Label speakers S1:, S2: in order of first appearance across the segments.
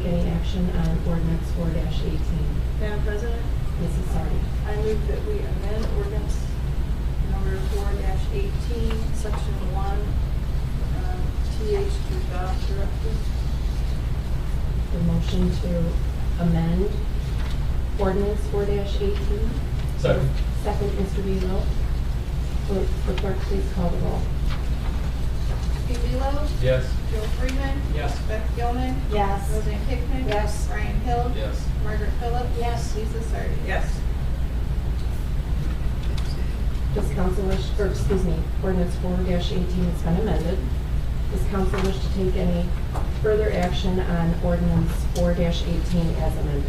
S1: action on ordinance four eighteen.
S2: Madam President,
S1: Mrs. Sardi.
S2: I move that we amend ordinance number four eighteen, section one, um, TH to adopt directive.
S1: The motion to amend ordinance four eighteen.
S3: Second.
S1: Second, Mr. Belo. Clerk- The clerk, please call the roll.
S4: Hugh Bello.
S3: Yes.
S4: Joel Freeman.
S3: Yes.
S4: Beth Gilman.
S1: Yes.
S4: Roseanne Hickman.
S2: Yes.
S4: Brian Hill.
S3: Yes.
S4: Margaret Phillips. Yes. Lisa Sardi.
S2: Yes.
S1: Does council wish, or excuse me, ordinance four eighteen has been amended. Does council wish to take any further action on ordinance four eighteen as amended?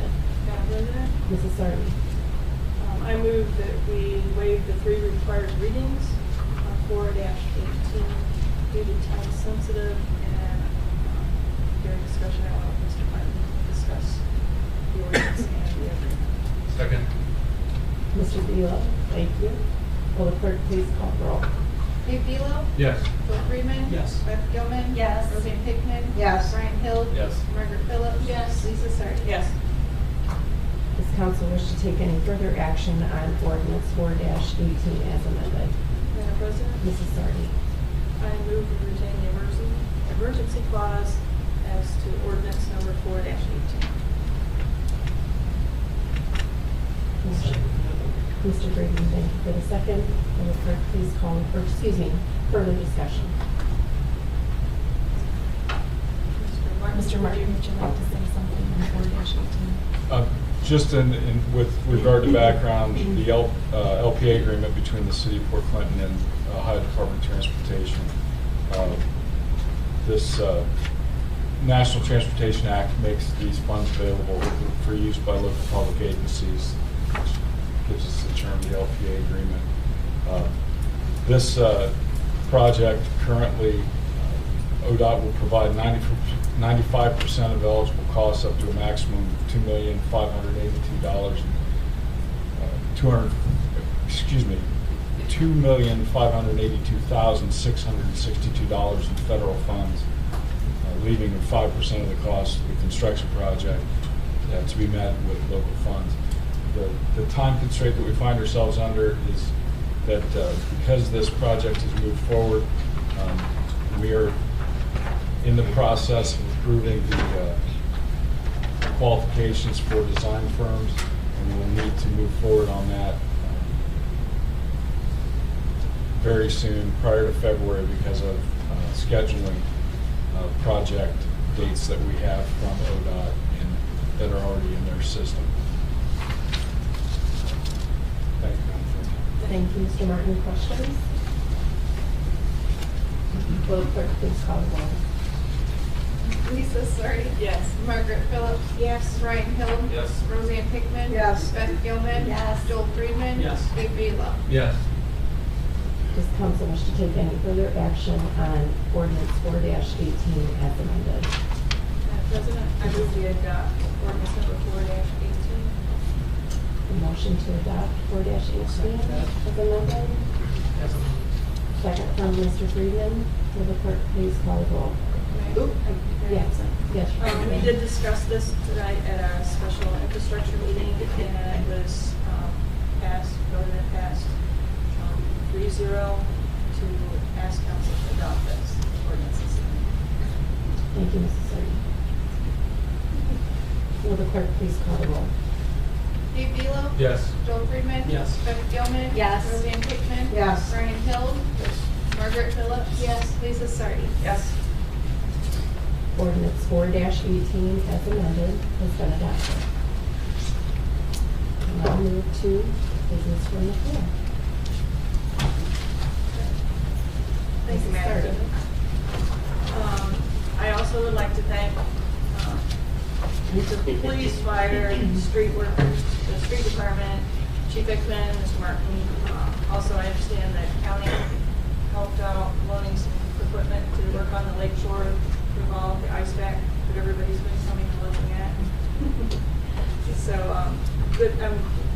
S2: Madam President,
S1: Mrs. Sardi.
S2: um, I move that we waive the three required readings on four eighteen due to time sensitive and um, during discussion, I want Mr. Martin to discuss the ordinance and the agreement.
S3: Second.
S1: Mr. Belo, thank you. Will the clerk please call the roll?
S4: Hugh Bello.
S3: Yes.
S4: Joel Freeman.
S3: Yes.
S4: Beth Gilman.
S2: Yes.
S4: Roseanne Hickman.
S2: Yes.
S4: Brian Hill.
S3: Yes.
S4: Margaret Phillips.
S2: Yes.
S4: Lisa Sardi.
S2: Yes.
S1: Does council wish to take any further action on ordinance four eighteen as amended?
S2: Madam President?
S1: Mrs. Sardi.
S2: I move to retain the emergency, emergency clause as to ordinance number four dash eighteen.
S1: Mr. Mr. Brady, thank you for the second. Will the clerk please call, or excuse me, further discussion?
S2: Mr.
S1: Mr. Martin,
S2: Martin? would
S1: would you like to say something on four eighteen?
S5: Uh, Just in, in- with regard to background, the L- uh, LPA agreement between the city of Port Clinton and Ohio Department of Transportation. uh, This uh, National Transportation Act makes these funds available for use by local public agencies, which gives us the term, the LPA agreement. Uh, This uh, project currently uh, ODOT will provide 95% of eligible costs up to a maximum of $2,582. uh, 200, excuse me, $2,582,662 in federal funds, uh, leaving 5% of the cost of the construction project uh, to be met with local funds. The- The time constraint that we find ourselves under is that uh, because this project has moved forward, um, we are in the process of approving the uh, qualifications for design firms, and we'll need to move forward on that um, very soon, prior to February, because of uh, scheduling uh, project dates that we have from ODOT and that are already in their system. Thank you, Madam President.
S1: Thank you, Mr. Martin. Questions? Will the clerk please call the roll?
S4: Lisa Sardi.
S2: Yes.
S4: Margaret Phillips. Yes. Brian Hill.
S3: Yes.
S4: Roseanne Hickman.
S2: Yes.
S4: Beth Gilman. Yes. Joel Freeman.
S3: Yes.
S4: Hugh Bello.
S3: Yes.
S1: Does council wish to take any further action on ordinance four eighteen as amended?
S2: Madam President, I move we adopt ordinance number four dash eighteen.
S1: The motion to adopt four eighteen as amended? Second from Mr. Friedman. Will the clerk please call the roll?
S2: Oop. I-
S1: Yes, yes.
S2: Um, we did discuss this tonight at our special infrastructure meeting, and it was, um, passed, voted and passed, um, three zero to ask council to adopt this ordinance.
S1: Thank you, Mrs. Sardi. Will the clerk please call the roll?
S4: Hugh Bello.
S3: Yes.
S4: Joel Freeman.
S3: Yes.
S4: Beth Gilman.
S2: Yes.
S4: Roseanne Hickman.
S2: Yes.
S4: Brian Hill. Margaret Phillips. Yes. Lisa Sardi.
S2: Yes.
S1: Ordinance four eighteen as amended has been adopted. Now move to business from the floor.
S2: Thank you,
S1: Mrs.
S2: Madam
S1: Sardi.
S2: President. Um, I also would like to thank um, the police, fire, street workers, the street department, Chief Hickman, Mr. Martin. Uh, Also, I understand that county helped out loaning some equipment to work on the lake shore revolve, the ice pack that everybody's been coming and looking at. So, um, good, I'm